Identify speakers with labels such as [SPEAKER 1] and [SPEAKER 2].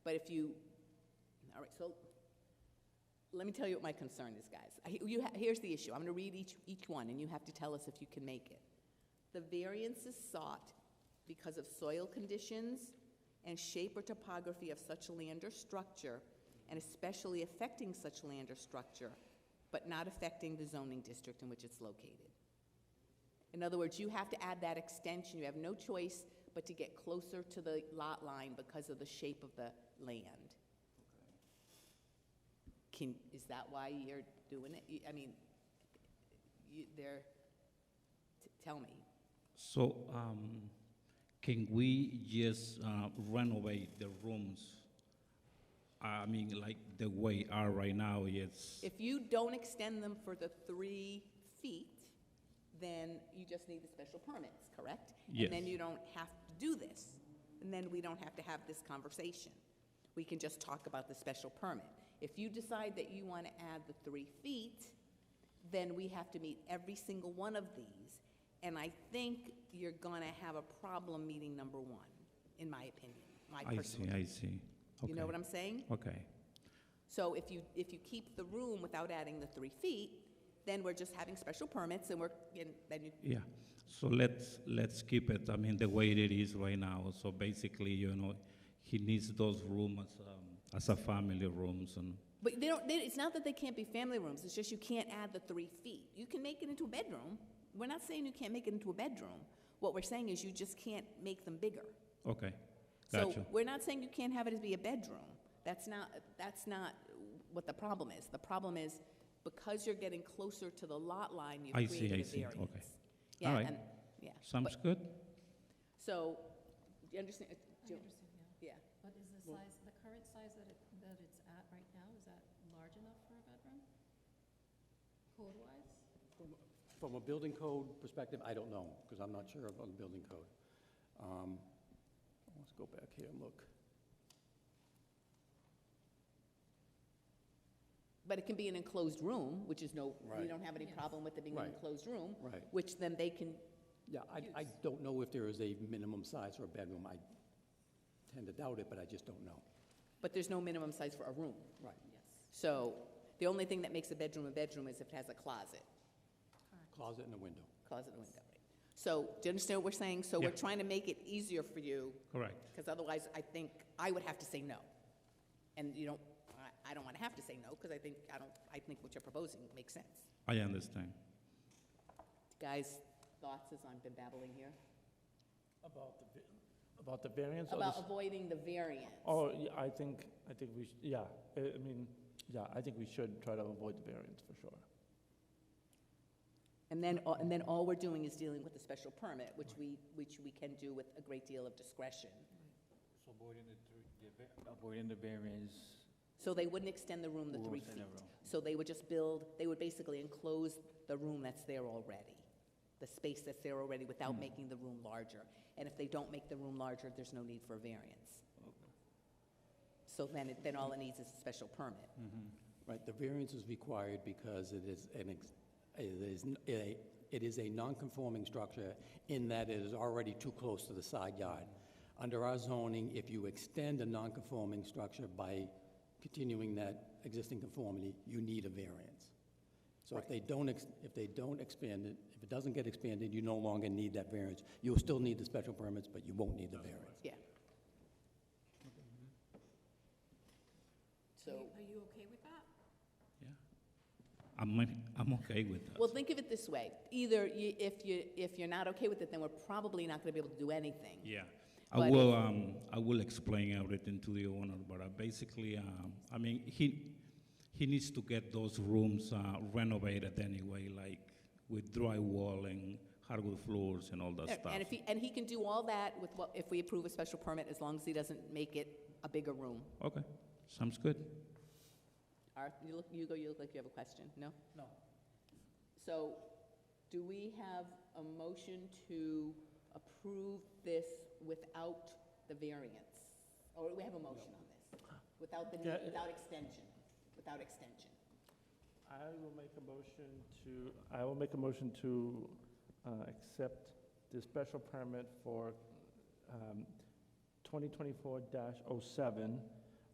[SPEAKER 1] But if you, all right, so let me tell you what my concern is, guys. I- You, ha- here's the issue. I'm going to read each, each one, and you have to tell us if you can make it. The variance is sought because of soil conditions and shape or topography of such land or structure, and especially affecting such land or structure, but not affecting the zoning district in which it's located. In other words, you have to add that extension, you have no choice but to get closer to the lot line because of the shape of the land. Can, is that why you're doing it? You- I mean, you, there, t- tell me.
[SPEAKER 2] So, um, can we just uh, renovate the rooms? I mean, like the way are right now, it's,
[SPEAKER 1] If you don't extend them for the three feet, then you just need the special permits, correct? And then
[SPEAKER 2] Yes.
[SPEAKER 1] you don't have to do this, and then we don't have to have this conversation. We can just talk about the special permit. If you decide that you want to add the three feet, then we have to meet every single one of these, and I think you're gonna have a problem meeting number one, in my opinion, my
[SPEAKER 2] I see,
[SPEAKER 1] personal.
[SPEAKER 2] I see.
[SPEAKER 1] You know what I'm saying?
[SPEAKER 2] Okay,
[SPEAKER 1] So if you, if you keep the room without adding the three feet, then we're just having special permits and we're, and then you,
[SPEAKER 2] yeah. So let's, let's keep it, I mean, the way it is right now. So basically, you know, he needs those rooms um, as a family rooms and,
[SPEAKER 1] but they don't, they, it's not that they can't be family rooms, it's just you can't add the three feet. You can make it into a bedroom. We're not saying you can't make it into a bedroom. What we're saying is you just can't make them bigger.
[SPEAKER 2] okay,
[SPEAKER 1] So
[SPEAKER 2] gotcha.
[SPEAKER 1] we're not saying you can't have it as be a bedroom. That's not, that's not what the problem is. The problem is because you're getting closer to the lot line, you've
[SPEAKER 2] I see,
[SPEAKER 1] created
[SPEAKER 2] I
[SPEAKER 1] a
[SPEAKER 2] see. Okay.
[SPEAKER 1] variance. Yeah,
[SPEAKER 2] Alright.
[SPEAKER 1] and, yeah.
[SPEAKER 2] Sounds good?
[SPEAKER 1] So, you understand, do you- yeah.
[SPEAKER 3] But is the size, the current size that it, that it's at right now, is that large enough for a bedroom? Code-wise?
[SPEAKER 4] From a building code perspective, I don't know, because I'm not sure about the building code. Um, Let's go back here and look.
[SPEAKER 1] But it can be an enclosed room, which is no, we
[SPEAKER 4] Right.
[SPEAKER 1] don't have any
[SPEAKER 3] Yes.
[SPEAKER 1] problem with it being an
[SPEAKER 4] Right.
[SPEAKER 1] enclosed room,
[SPEAKER 4] Right.
[SPEAKER 1] which then they can,
[SPEAKER 4] Yeah, I, I don't know if there is a minimum size for a bedroom. I tend to doubt it, but I just don't know.
[SPEAKER 1] but there's no minimum size for a room.
[SPEAKER 4] Right.
[SPEAKER 3] Yes.
[SPEAKER 1] So the only thing that makes a bedroom a bedroom is if it has a closet,
[SPEAKER 4] Closet and a window.
[SPEAKER 1] closet and window, right? So, do you understand what we're saying? So we're
[SPEAKER 2] Yeah.
[SPEAKER 1] trying to make it easier for you,
[SPEAKER 2] Correct.
[SPEAKER 1] because otherwise I think I would have to say no. And you don't, I, I don't want to have to say no, because I think, I don't, I think what you're proposing makes sense.
[SPEAKER 2] I understand.
[SPEAKER 1] Guys, thoughts as I've been babbling here?
[SPEAKER 5] About the, va- about the variance? or the
[SPEAKER 1] About
[SPEAKER 5] s-
[SPEAKER 1] avoiding the variance.
[SPEAKER 5] Oh, yeah, I think, I think we, sh- yeah, I I mean, yeah, I think we should try to avoid the variance for sure.
[SPEAKER 1] And then, all- and then all we're doing is dealing with the special permit, which we, which we can do with a great deal of discretion.
[SPEAKER 6] So avoiding the three, the va- avoiding the variance.
[SPEAKER 1] So they wouldn't extend the room the
[SPEAKER 6] we
[SPEAKER 1] three
[SPEAKER 6] won't say
[SPEAKER 1] feet.
[SPEAKER 6] no wrong.
[SPEAKER 1] So they would just build, they would basically enclose the room that's there already, the space that's there already without making the room larger. And if they don't make the room larger, there's no need for a variance. So then, it- then all it needs is a special permit.
[SPEAKER 4] Right, the variance is required because it is an, ex- it is, n- a- it is a non-conforming structure in that it is already too close to the side yard. Under our zoning, if you extend a non-conforming structure by continuing that existing conformity, you need a variance. So if they don't, ex- if they don't expand it, if it doesn't get expanded, you no longer need that variance. You'll still need the special permits, but you won't need the variance.
[SPEAKER 1] Yeah. mm-hmm.
[SPEAKER 3] Are
[SPEAKER 1] So.
[SPEAKER 3] you- Are you okay with that?
[SPEAKER 2] Yeah. I'm, I'm okay with that.
[SPEAKER 1] Well, think of it this way. Either you, if you, if you're not okay with it, then we're probably not gonna be able to do anything.
[SPEAKER 2] Yeah,
[SPEAKER 1] But
[SPEAKER 2] I will, um, I will explain everything to the owner, but uh, basically, um, I mean, he, he needs to get those rooms uh, renovated anyway, like with drywall and hardwood floors and all that stuff.
[SPEAKER 1] And if he, and he can do all that with what, if we approve a special permit, as long as he doesn't make it a bigger room.
[SPEAKER 2] Okay, sounds good.
[SPEAKER 1] Art, you look, you go, you look like you have a question, no? No. So, do we have a motion to approve this without the variance? Or we have a motion on this? Without the,
[SPEAKER 5] Yeah, it-
[SPEAKER 1] without extension, without extension?
[SPEAKER 5] I will make a motion to, I will make a motion to uh, accept the special permit for um, 2024-07